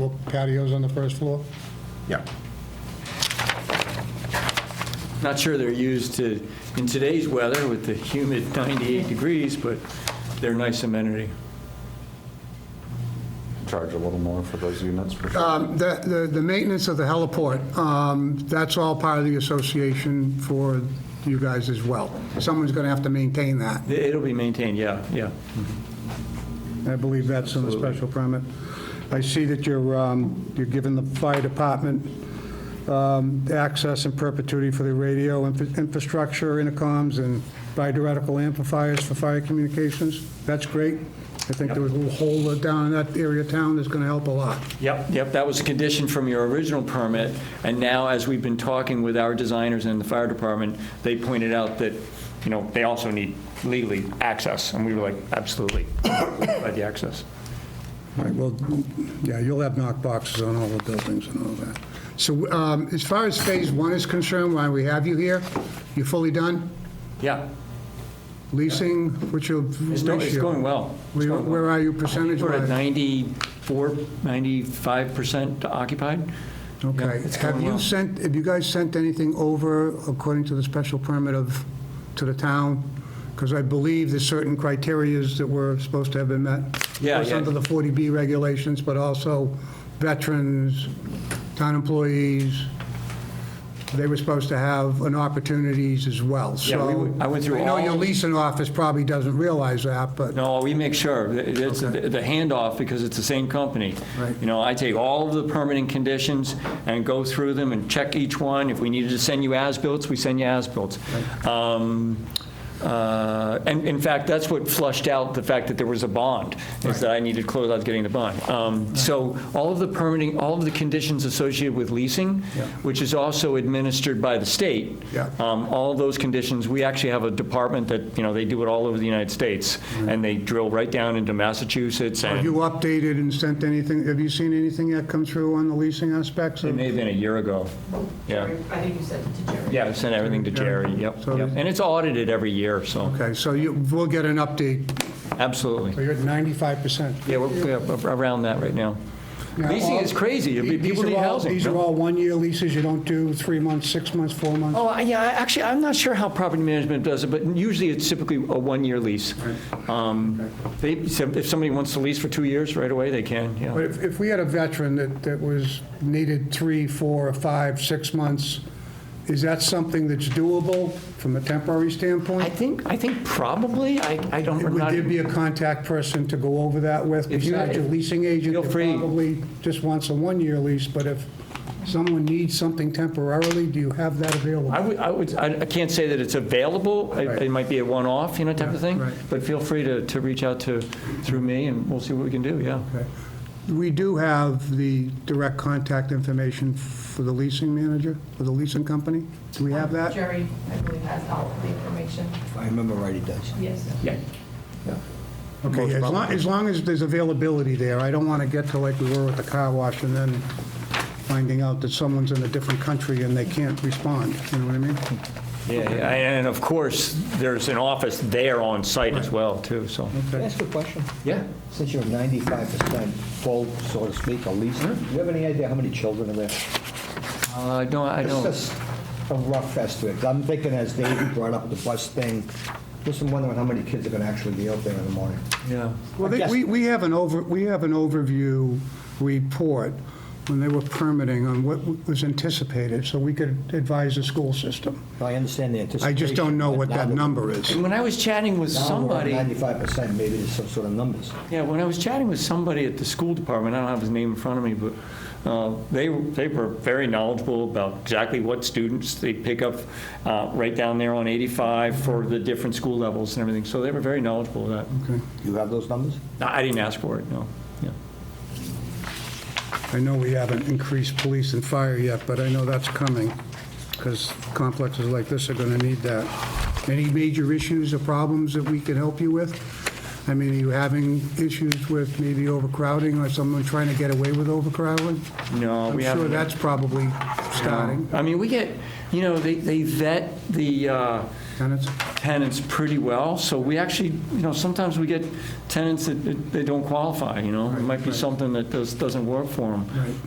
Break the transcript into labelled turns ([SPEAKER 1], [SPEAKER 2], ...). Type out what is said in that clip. [SPEAKER 1] no patios on the first floor?
[SPEAKER 2] Yeah.
[SPEAKER 3] Not sure they're used to, in today's weather with the humid 98 degrees, but they're a nice amenity.
[SPEAKER 4] Charge a little more for those units. for sure.
[SPEAKER 1] Um, The, the- the maintenance of the heliport, um, that's all part of the association for you guys as well. Someone's going to have to maintain that.
[SPEAKER 3] It'll be maintained, yeah, yeah.
[SPEAKER 1] I believe that's in the special permit. I see that you're, um, you're giving the fire department um, access and perpetuity for the radio infra- infrastructure, intercoms, and bidirectional amplifiers for fire communications. That's great. I think there was a little hole down in that area of town that's going to help a lot.
[SPEAKER 3] Yep, yep, that was a condition from your original permit, and now, as we've been talking with our designers and the fire department, they pointed out that, you know, they also need legally access, and we were like, absolutely, by the access.
[SPEAKER 1] All right, well, yeah, you'll have knock boxes on all the buildings and all that. So um, as far as Phase 1 is concerned, why we have you here, you fully done?
[SPEAKER 3] Yeah,
[SPEAKER 1] Leasing, what's your
[SPEAKER 3] it's do-
[SPEAKER 1] ratio?
[SPEAKER 3] it's going well. It's
[SPEAKER 1] Where
[SPEAKER 3] going well.
[SPEAKER 1] where are you percentage-wise?
[SPEAKER 3] We're at 94, 95% occupied. Yeah,
[SPEAKER 1] Okay.
[SPEAKER 3] it's
[SPEAKER 1] Have
[SPEAKER 3] going
[SPEAKER 1] you
[SPEAKER 3] well.
[SPEAKER 1] sent, have you guys sent anything over according to the special permit of, to the town? Because I believe there's certain criterias that were supposed to have been met.
[SPEAKER 3] Yeah,
[SPEAKER 1] Of course,
[SPEAKER 3] yeah.
[SPEAKER 1] under the 40B regulations, but also veterans, town employees, they were supposed to have an opportunities as well, so.
[SPEAKER 3] Yeah, we went- I went through
[SPEAKER 1] know
[SPEAKER 3] all-
[SPEAKER 1] your leasing office probably doesn't realize that, but.
[SPEAKER 3] No, we make sure. It's the the handoff, because it's the same company.
[SPEAKER 1] Right.
[SPEAKER 3] You know, I take all of the permitting conditions and go through them and check each one. If we needed to send you as-built, we send you as-built. Um, uh, And in fact, that's what flushed out the fact that there was a bond, is that I needed closeout getting the bond. Um, So all of the permitting, all of the conditions associated with leasing,
[SPEAKER 1] Yeah.
[SPEAKER 3] which is also administered by the state.
[SPEAKER 1] Yeah.
[SPEAKER 3] Um, All those conditions, we actually have a department that, you know, they do it all over the United States, and they drill right down into Massachusetts,
[SPEAKER 1] Have
[SPEAKER 3] and
[SPEAKER 1] you updated and sent anything, have you seen anything that come through on the leasing aspects?
[SPEAKER 3] it
[SPEAKER 1] of-
[SPEAKER 3] may have been a year ago. Yeah,
[SPEAKER 5] I think you sent it to Jerry.
[SPEAKER 3] yeah, I sent everything to Jerry, yep,
[SPEAKER 1] So-
[SPEAKER 3] yep. And it's audited every year, so,
[SPEAKER 1] Okay, so you, we'll get an update.
[SPEAKER 3] absolutely.
[SPEAKER 1] you're at 95%.
[SPEAKER 3] Yeah, we're yeah, around that right now.
[SPEAKER 1] Now,
[SPEAKER 3] Leasing
[SPEAKER 1] all-
[SPEAKER 3] is crazy. It'd be-
[SPEAKER 1] These
[SPEAKER 3] People
[SPEAKER 1] are
[SPEAKER 3] need
[SPEAKER 1] all-
[SPEAKER 3] housing.
[SPEAKER 1] These are all one-year leases, you don't do three months, six months, four months?
[SPEAKER 3] Oh, I- yeah, I- actually, I'm not sure how property management does it, but usually it's typically a one-year lease. Um, They, so if somebody wants to lease for two years right away, they can,
[SPEAKER 1] But
[SPEAKER 3] yeah.
[SPEAKER 1] if, if we had a veteran that, that was, needed three, four, or five, six months, is that something that's doable from a temporary
[SPEAKER 3] I
[SPEAKER 1] standpoint?
[SPEAKER 3] think, I think probably, I, I don't, I'm
[SPEAKER 1] Would
[SPEAKER 3] not.
[SPEAKER 1] there be a contact person to go over that with,
[SPEAKER 3] If you-
[SPEAKER 1] besides your leasing agent?
[SPEAKER 3] Feel
[SPEAKER 1] that
[SPEAKER 3] free.
[SPEAKER 1] Probably just wants a one-year lease, but if someone needs something temporarily, do you have that available?
[SPEAKER 3] I would, I would, I I can't say that it's available, it it might be a one-off, you know, type of thing,
[SPEAKER 1] right.
[SPEAKER 3] but feel free to, to reach out to, through me, and we'll see what we can do, yeah.
[SPEAKER 1] Okay. We do have the direct contact information for the leasing manager, for the leasing company? Do we have that?
[SPEAKER 5] Jerry, I believe, has all the information.
[SPEAKER 6] If I remember right, it does.
[SPEAKER 5] Yes.
[SPEAKER 3] Yeah.
[SPEAKER 1] Okay, as long, as long as there's availability there, I don't want to get to like we were with the car wash and then finding out that someone's in a different country and they can't respond, you know what I mean?
[SPEAKER 3] Yeah, yeah, and of course, there's an office there on site as well, too, so,
[SPEAKER 6] Can I ask a question?
[SPEAKER 3] yeah.
[SPEAKER 6] Since you're 95% full, so to speak, at least, do you have any idea how many children are there?
[SPEAKER 3] Uh, no, I
[SPEAKER 6] It's
[SPEAKER 3] don't,
[SPEAKER 6] just a rough estimate. I'm thinking as Dave brought up the bus thing, just I'm wondering how many kids are going to actually be out there in the morning.
[SPEAKER 3] yeah.
[SPEAKER 1] Well, they- we, we have an over, we have an overview report when they were permitting on what was anticipated, so we could advise the school system.
[SPEAKER 6] I understand the
[SPEAKER 1] I
[SPEAKER 6] anticipation.
[SPEAKER 1] just don't know
[SPEAKER 6] but
[SPEAKER 1] what
[SPEAKER 6] now
[SPEAKER 1] that
[SPEAKER 6] we're-
[SPEAKER 1] number is.
[SPEAKER 3] When I was chatting with
[SPEAKER 6] now we're at
[SPEAKER 3] somebody.
[SPEAKER 6] 95%, maybe there's some sort of numbers.
[SPEAKER 3] Yeah, when I was chatting with somebody at the school department, I don't have his name in front of me, but uh, they, they were very knowledgeable about exactly what students they pick up uh, right down there on 85 for the different school levels and everything, so they were very knowledgeable of
[SPEAKER 1] Okay.
[SPEAKER 6] You have those numbers?
[SPEAKER 3] that. I I didn't ask for it, no, yeah.
[SPEAKER 1] I know we haven't increased police and fire yet, but I know that's coming, because complexes like this are going to need that. Any major issues or problems that we can help you with? I mean, are you having issues with maybe overcrowding, or someone trying to get away with overcrowding?
[SPEAKER 3] No, we
[SPEAKER 1] I'm sure
[SPEAKER 3] haven't.
[SPEAKER 1] that's probably starting.
[SPEAKER 3] I mean, we get, you know, they, they vet the, uh,
[SPEAKER 1] tenants?
[SPEAKER 3] tenants pretty well, so we actually, you know, sometimes we get tenants that, that they don't qualify, you know? It might be something that does, doesn't work for them.